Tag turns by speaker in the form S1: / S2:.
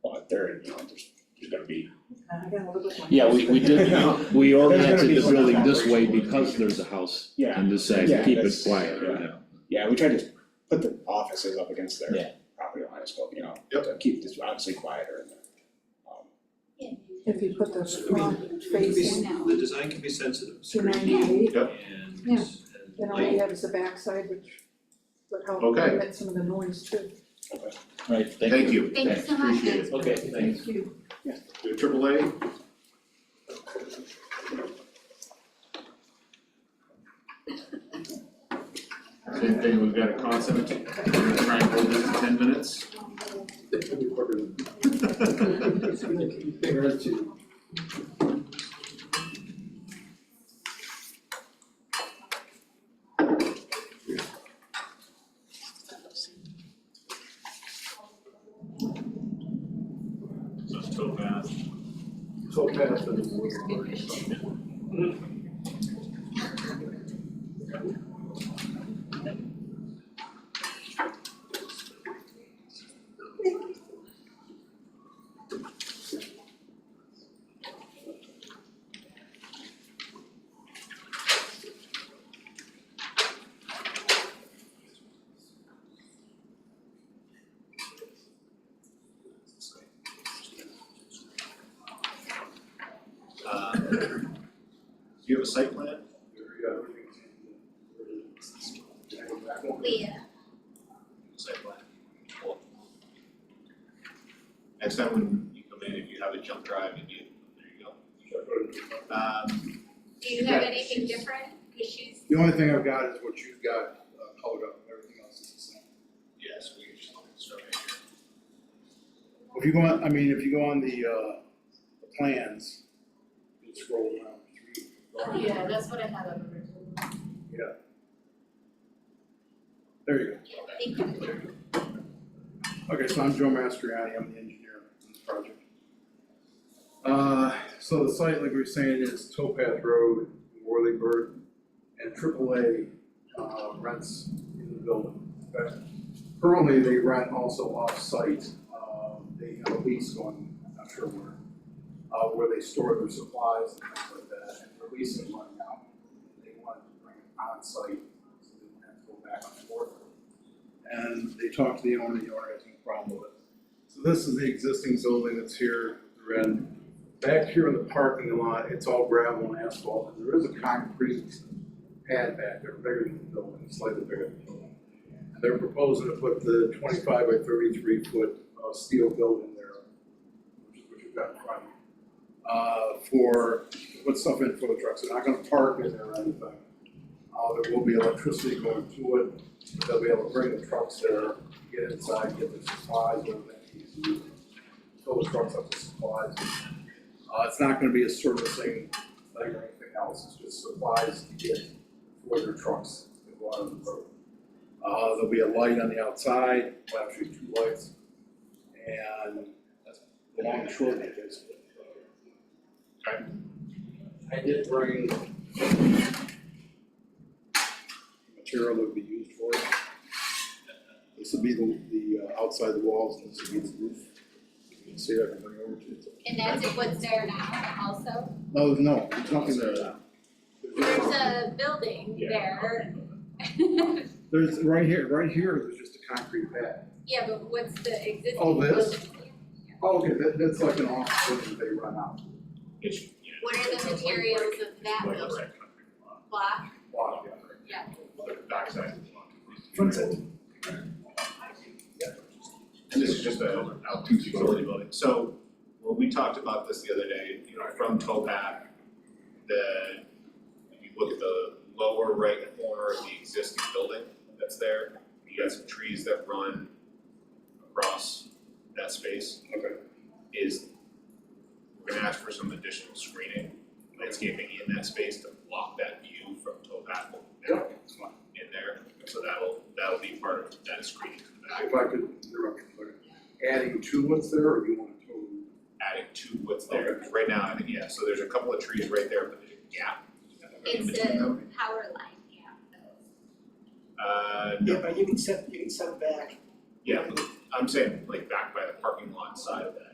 S1: there and, you know, there's, there's gonna be.
S2: I gotta look at my-
S3: Yeah, we, we
S1: You
S3: did,
S1: know?
S3: we oriented
S1: be
S3: the
S1: some
S3: building this way
S1: operational
S3: because
S1: issues.
S3: there's a house
S1: Yeah,
S3: and this side,
S1: Yeah,
S3: keep it
S1: that's-
S3: quiet,
S1: yeah.
S3: yeah.
S1: yeah, we tried to put the offices up against
S3: Yeah.
S1: their property lines, but, you know, to keep this obviously quieter and, um,
S2: If you put the front
S4: It could be-
S2: facing,
S4: The design can be sensitive,
S2: two
S4: screening
S2: ninety-eight,
S4: and,
S2: Yeah.
S4: and
S2: then all you
S4: light.
S2: have is the backside, which would help
S5: Okay.
S2: limit some of the noise too.
S3: Right,
S5: Thank you.
S6: Thank you so much.
S5: Appreciate it.
S3: Okay,
S2: Thank you.
S5: Uh, Triple A? Same thing, we've got a concept, we're gonna try and hold this to ten minutes.
S4: Not so bad. Uh, Do you have a site plan?
S6: We, uh,
S4: Site plan. Cool. Next time when you come in, if you have a jump drive, you do, there you go. Um,
S6: do you have anything different? Cause she's
S7: The only thing I've got is what you've got uh, colored up, everything else is the same.
S4: yes, we can just look at this right here.
S7: If you go on, I mean, if you go on the, uh, the plans, you scroll down three. lines.
S8: Yeah, that's what I had on originally.
S7: There you
S6: thank you.
S7: go. Okay, so I'm Joe Mastriani, I'm the engineer on this project. Uh, so the site, like we were saying, is Towpath Road, Worleyburg, and AAA, uh, rents in the building. But Currently, they rent also off-site, uh, they have a lease going, I'm not sure where, uh, where they store their supplies and things like that, and their lease is running out. They wanted to bring it on-site, so they didn't have to go back and forth. And they talked to the owner, the owner has no problem with it. So this is the existing building that's here, the red. Back here in the parking lot, it's all gravel and asphalt, and there is a concrete pad back there, bigger than the building, slightly bigger than the building. And they're proposing to put the twenty-five by thirty-three foot uh, steel building there, which is what you've got in front of you. Uh, for, put stuff in for the trucks, they're not gonna park in there or anything. Uh, there will be electricity going to it, but they'll be able to bring the trucks there, get inside, get the supplies, whatever they need to do. Fill the trucks up with supplies. Uh, it's not gonna be a servicing thing or anything else, it's just supplies to get for their trucks that go out on the road. Uh, there'll be a light on the outside, well, actually two lights, and that's the long and short of it is. Okay. I did bring material that would be used for it. This would be the, the uh, outside the walls, and this would be the roof. You can see that coming over to it.
S6: And that's what's there now also.
S7: No, Oh, no, there's nothing there.
S6: There's a building
S1: Yeah.
S6: there.
S7: There's, right here, right here, there's just a concrete pad.
S6: Yeah, but what's the existing?
S7: Oh, this?
S6: building? Yeah.
S7: Oh, Okay, that, that's like an office building that they run out.
S4: It's, yeah.
S6: What are the materials of that
S4: Like a
S6: building
S4: red concrete block.
S6: block?
S7: Wow.
S6: Yeah.
S4: Like a backside of the block.
S7: Front side.
S4: And this is just a out utility building, so when we talked about this the other day, you know, from Topac, the, if you look at the lower right corner of the existing building that's there, you got some trees that run across that space.
S7: Okay.
S4: Is, we're gonna ask for some additional screening, landscaping in that space to block that view from Topac down in there, so that'll, that'll be part of that screening in the back.
S7: If I could interrupt you for a second. Adding to what's there, or you want to totally?
S4: adding to what's there, 'Cause right now, I think, yeah, so there's a couple of trees right there, but there's a gap. in
S6: It's
S4: between
S6: a
S4: them.
S6: power line, yeah.
S4: Uh,
S1: Yeah,
S4: no,
S1: but you can set, you can set it back.
S4: yeah, I'm saying like back by the parking lot side of that,